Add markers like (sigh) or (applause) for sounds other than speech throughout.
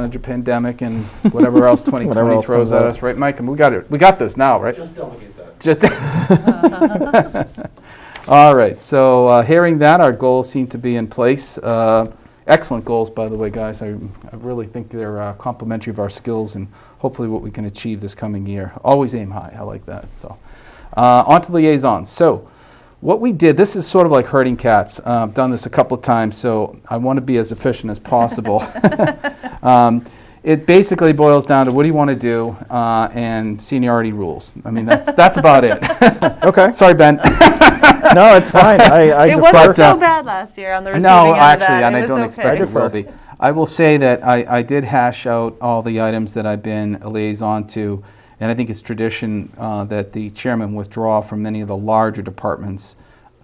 manage a pandemic and whatever (laughs) else Whatever 2020 else throws comes at up. us, right, Mike? And we got it, we got this now, right? Just delegate that. Just, (laughs) all right, so uh, hearing that, our goals seem to be in place. Uh, Excellent goals, by the way, guys. I I really think they're uh, complementary of our skills and hopefully what we can achieve this coming year. Always aim high, I like that, so. Uh, On to liaisons. So what we did, this is sort of like herding cats. Uh, I've done this a couple of times, so I want to be as efficient as possible. (laughs) Um, It basically boils down to what do you want to do uh, and seniority rules. I mean, that's, that's about it. Okay. (laughs) Sorry, Ben. No, it's fine. I, I (laughs) It defer. wasn't But, uh, so bad last year on the receiving No, end of that. actually, and It I was don't okay. expect it will defer. be. I will say that I, I did hash out all the items that I've been a liaison to, and I think it's tradition uh, that the chairman withdraw from many of the larger departments,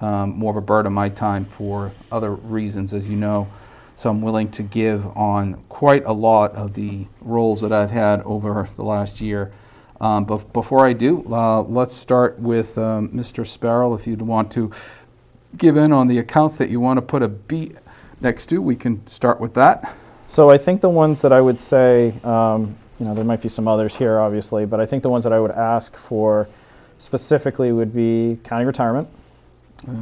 um, more of a burden of my time for other reasons, as you know. So I'm willing to give on quite a lot of the roles that I've had over the last year. Um, But before I do, uh, let's start with um, Mr. Sparrow, if you'd want to give in on the accounts that you want to put a B next to, we can start with that. So I think the ones that I would say, um, you know, there might be some others here, obviously, but I think the ones that I would ask for specifically would be county retirement, Uh,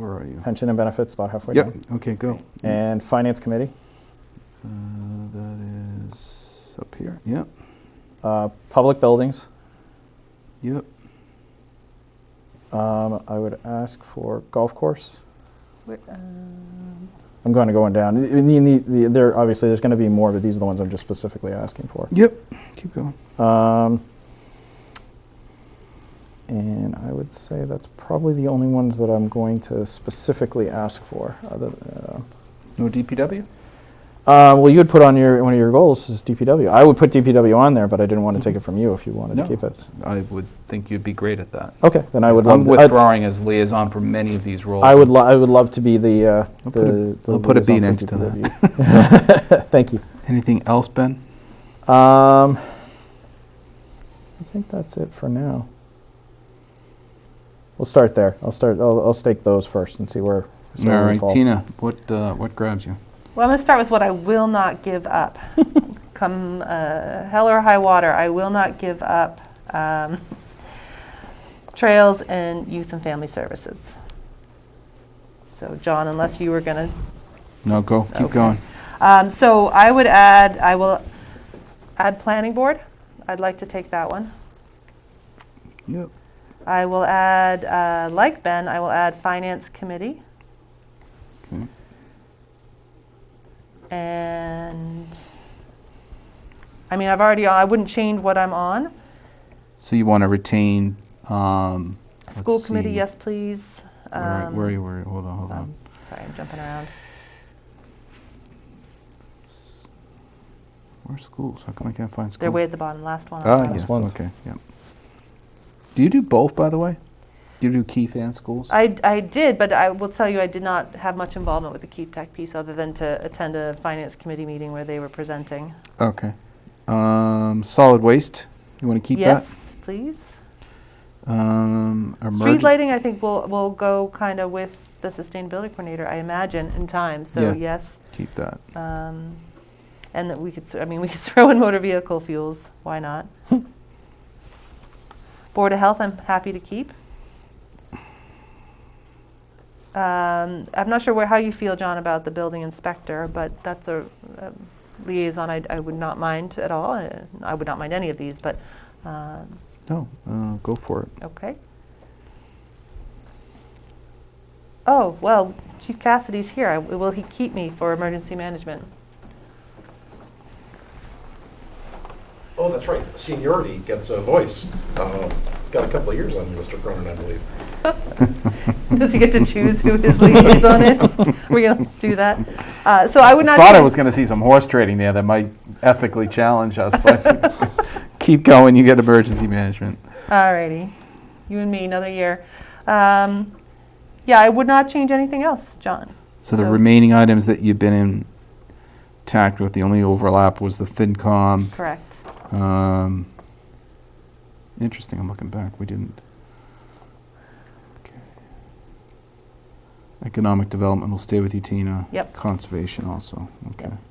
Where are you? pension and benefits, about halfway Yep, down, okay, go. Uh, and finance committee, That is up here, yep, uh, public buildings. yep. Um, I would ask for golf course. Wait, um, I'm going to go on down. I- I mean, the- the- there obviously there's going to be more, but these are the ones I'm just specifically asking for. Yep, keep going. Um, and I would say that's probably the only ones that I'm going to specifically ask for. Other, uh, No DPW? uh, well, you would put on your one of your goals is DPW. I would put DPW on there, but I didn't want to take it from you if you wanted No. to keep it. I would think you'd be great at that. Okay, then I would I'm love. to- I'd- withdrawing as liaison for many of these roles. I would. Lo- I would love to be the. Uh, I'll put a- the, the I'll put a B liaison for next to that. DPW. (laughs) Thank you. Anything else, Ben? Um, I think that's it for now. We'll start there. I'll start. I'll, I'll stake those first and see where. see All where we right, fall. Tina, what, uh, what grabs you? Well, I'm going to start with what I will not (laughs) give up. Come uh, hell or high water, I will not give up um, trails and youth and family services. So, John, unless you were going to No, go, keep Okay. going. Um, So I would add, I will add planning board. I'd like to take that one. Yep. I will add, uh, like Ben, I will add finance committee. Okay. And, I mean, I've already, I wouldn't change what I'm on. So you want to retain, um. let's School committee, see. yes, please. Where, Um, where are you, where, are you? hold on, hold on. um, Sorry, I'm jumping around. Where's schools? How come I can't find schools? They're uh, way at the bottom, last one. on the Ah, bottom. yes, ones. okay, yeah. Do you do both, by the way? Do you do key fan schools? I, I did, but I will tell you, I did not have much involvement with the Keep Tech piece other than to attend a finance committee meeting where they were presenting. Okay. Um, solid waste, you want to keep that? Yes, please. Um, Street emerg- lighting, I think, will, will go kind of with the sustainability coordinator, I imagine, in time, so Yeah. yes. Keep that. um, And that we could, th- I mean, we could (laughs) throw in motor vehicle fuels, why not? Board of Health, I'm happy to keep. Um, I'm not sure where, how you feel, John, about the building inspector, but that's a um, liaison I, I would not mind at all. uh, I would not mind any of these, but, um, No, uh, go for it. Okay. Oh, well, Chief Cassidy's here. I- Will he keep me for emergency management? (laughs) Oh, that's right, seniority gets a voice. Um, Got a couple of years on you, Mr. Cronin, I believe. (laughs) (laughs) Does he get to choose who his liaison is? (laughs) We're going to do that. Uh, So I would not. Thought I do- was going to see some horse trading there that might ethically challenge us, (laughs) but (laughs) keep going, you get emergency management. All righty. You and me, another year. Um, Yeah, I would not change anything else, John. So the So- remaining items that you've been in tact with, the only overlap was the FinCom. Correct. Um, interesting. I'm looking back. We didn't. Okay. Economic development will stay with you, Tina. Yep. Conservation also. Okay. Yep.